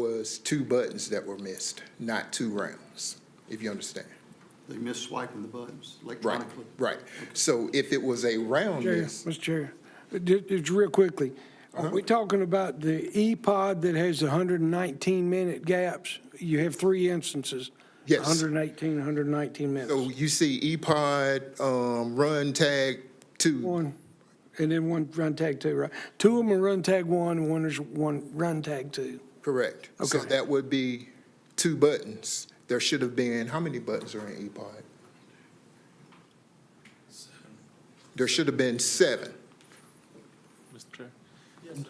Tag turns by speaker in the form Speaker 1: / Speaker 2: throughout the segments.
Speaker 1: was two buttons that were missed, not two rounds, if you understand.
Speaker 2: They miss swiping the buttons
Speaker 1: Right,
Speaker 2: electronically.
Speaker 1: right. So if it was a round
Speaker 3: Chair,
Speaker 1: miss,
Speaker 3: Mr. Chair, just, just real quickly, are we talking about the E-Pod that has the 119-minute gaps? You have three instances.
Speaker 1: Yes.
Speaker 3: 118, 119
Speaker 1: so
Speaker 3: minutes.
Speaker 1: you see E-Pod, um, run tag two,
Speaker 3: One, and then one run tag two, right? Two of them are run tag one, and one is one run tag two.
Speaker 1: correct. So
Speaker 3: Okay.
Speaker 1: that would be two buttons. There should have been, how many buttons are in E-Pod? There should have been seven.
Speaker 4: Mr. Chair?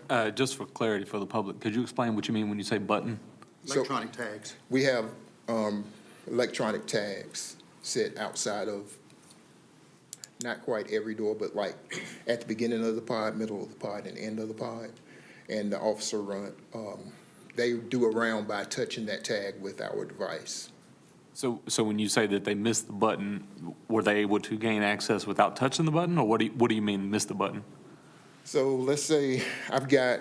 Speaker 4: Uh, Just for clarity for the public, could you explain what you mean when you say button?
Speaker 1: So-
Speaker 2: Electronic tags.
Speaker 1: We have um, electronic tags set outside of, not quite every door, but like at the beginning of the pod, middle of the pod, and end of the pod. And the officer run, um, they do a round by touching that tag with our device.
Speaker 4: So, so when you say that they missed the button, were they able to gain access without touching the button? Or what do you, what do you mean, missed the button?
Speaker 1: So let's say I've got,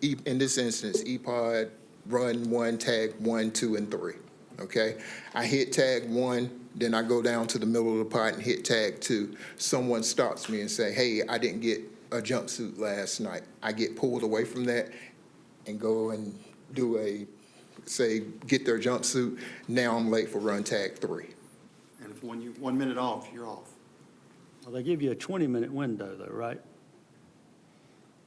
Speaker 1: E- in this instance, E-Pod, run one, tag one, two, and three, okay? I hit tag one, then I go down to the middle of the pod and hit tag two. Someone stops me and say, hey, I didn't get a jumpsuit last night. I get pulled away from that and go and do a, say, get their jumpsuit. Now I'm late for run tag three.
Speaker 2: And if one, you, one minute off, you're off.
Speaker 5: Well, they give you a 20-minute window though, right?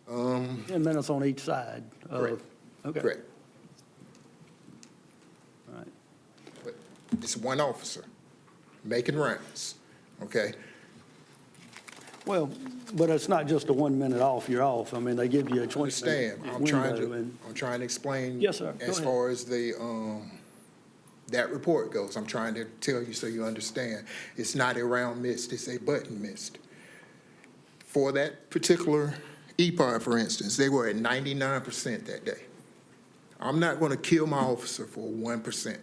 Speaker 5: 10 minutes on each side of.
Speaker 1: Um. Correct.
Speaker 5: Okay.
Speaker 1: Correct.
Speaker 5: All right.
Speaker 1: But It's one officer making rounds, okay?
Speaker 5: Well, but it's not just a one minute off, you're off. I mean, they give you a 20 minute
Speaker 1: Understand, I'm trying
Speaker 5: window.
Speaker 1: to,
Speaker 5: and-
Speaker 1: I'm trying to explain.
Speaker 5: Yes, sir. Go
Speaker 1: As
Speaker 5: ahead.
Speaker 1: far as the, um, that report goes, I'm trying to tell you so you understand. It's not a round missed, it's a button missed. For that particular E EPOD, for instance, they were at ninety-nine percent that day. I'm not gonna kill my officer for one percent.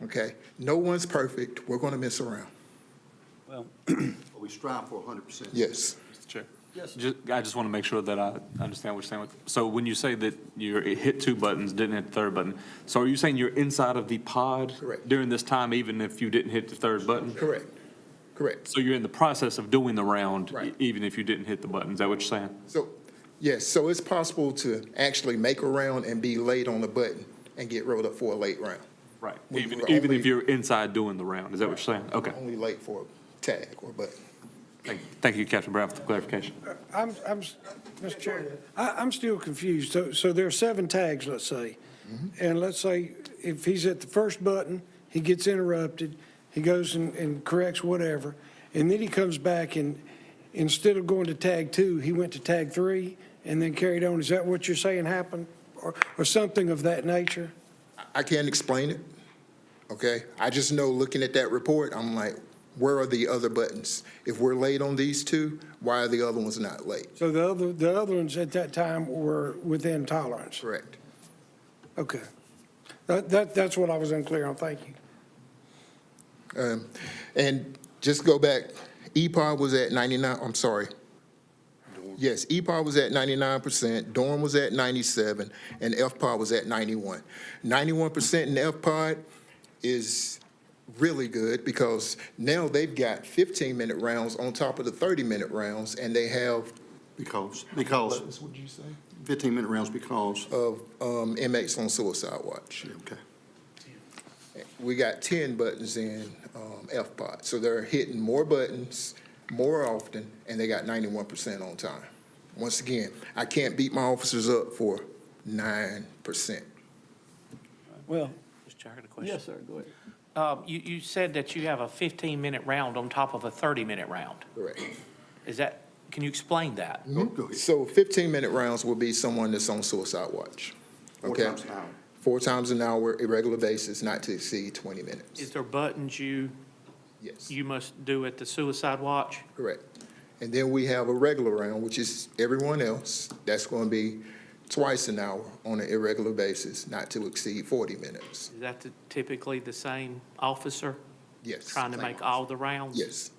Speaker 1: Okay? No one's perfect, we're gonna miss around,
Speaker 5: Well,
Speaker 2: But we strive for hundred percent.
Speaker 1: yes.
Speaker 4: Mr. Chair?
Speaker 5: Yes, sir.
Speaker 4: Ju- I just want to make sure that I understand what you're saying. with- So when you say that you hit two buttons, didn't hit the third button, so are you saying you're inside of the pod?
Speaker 1: Correct.
Speaker 4: During this time, even if you didn't hit the third button?
Speaker 1: Correct, correct.
Speaker 4: So you're in the process of doing the round? e-
Speaker 1: Right.
Speaker 4: Even if you didn't hit the button, is that what you're saying?
Speaker 1: So, yes, so it's possible to actually make a round and be late on the button and get rolled up for a late round.
Speaker 4: Right,
Speaker 1: We
Speaker 4: even,
Speaker 1: were
Speaker 4: even if
Speaker 1: only-
Speaker 4: you're inside doing the round, is that what you're saying? Okay,
Speaker 1: Only late for a tag or button.
Speaker 4: thank, thank you, Captain Brown, for the clarification.
Speaker 3: I'm, I'm, Mr. Chair, I, I'm still confused. So, so there are seven tags, let's say. And let's say if he's at the first button, he gets interrupted, he goes and, and corrects whatever. And then he comes back and instead of going to tag two, he went to tag three and then carried on. Is that what you're saying happened? Or, or something of that nature?
Speaker 1: I- I can't explain it, okay? I just know, looking at that report, I'm like, where are the other buttons? If we're late on these two, why are the other ones not late?
Speaker 3: So the other, the other ones at that time were within tolerance?
Speaker 1: Correct.
Speaker 3: Okay. That, that, that's what I was unclear on. Thank you.
Speaker 1: Um, And just go back, E EPOD was at 99, I'm sorry. Yes, E EPOD was at 99%, Dorm was at 97, and FPOD was at 91. 91% in FPOD is really good because now they've got 15-minute rounds on top of the 30-minute rounds, and they have,
Speaker 2: Because, because
Speaker 1: what'd you say?
Speaker 2: fifteen-minute rounds because,
Speaker 1: Of um, inmates on suicide watch.
Speaker 2: okay.
Speaker 1: we got ten buttons in um, FPOT. So they're hitting more buttons more often, and they got ninety-one percent on time. Once again, I can't beat my officers up for nine percent.
Speaker 5: well,
Speaker 6: Mr. Chair, I got a
Speaker 5: yes,
Speaker 6: question.
Speaker 5: sir, go ahead.
Speaker 6: Um, You, you said that you have a 15-minute round on top of a 30-minute round.
Speaker 1: Correct.
Speaker 6: Is that, can you explain that?
Speaker 2: Go- Oh, go ahead.
Speaker 1: So fifteen-minute rounds will be someone that's on suicide watch.
Speaker 2: Four
Speaker 1: okay?
Speaker 2: times an hour.
Speaker 1: Four times an hour, irregular basis, not to exceed twenty minutes.
Speaker 6: Is there buttons you,
Speaker 1: Yes,
Speaker 6: you must do at the suicide watch?
Speaker 1: correct. And then we have a regular round, which is everyone else. That's going to be twice an hour on an irregular basis, not to exceed forty minutes.
Speaker 6: Is that the- typically the same officer
Speaker 1: Yes.
Speaker 6: trying to make all the rounds?
Speaker 1: Yes.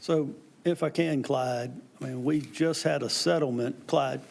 Speaker 5: So if I can, Clyde, I mean, we just had a settlement, Clyde,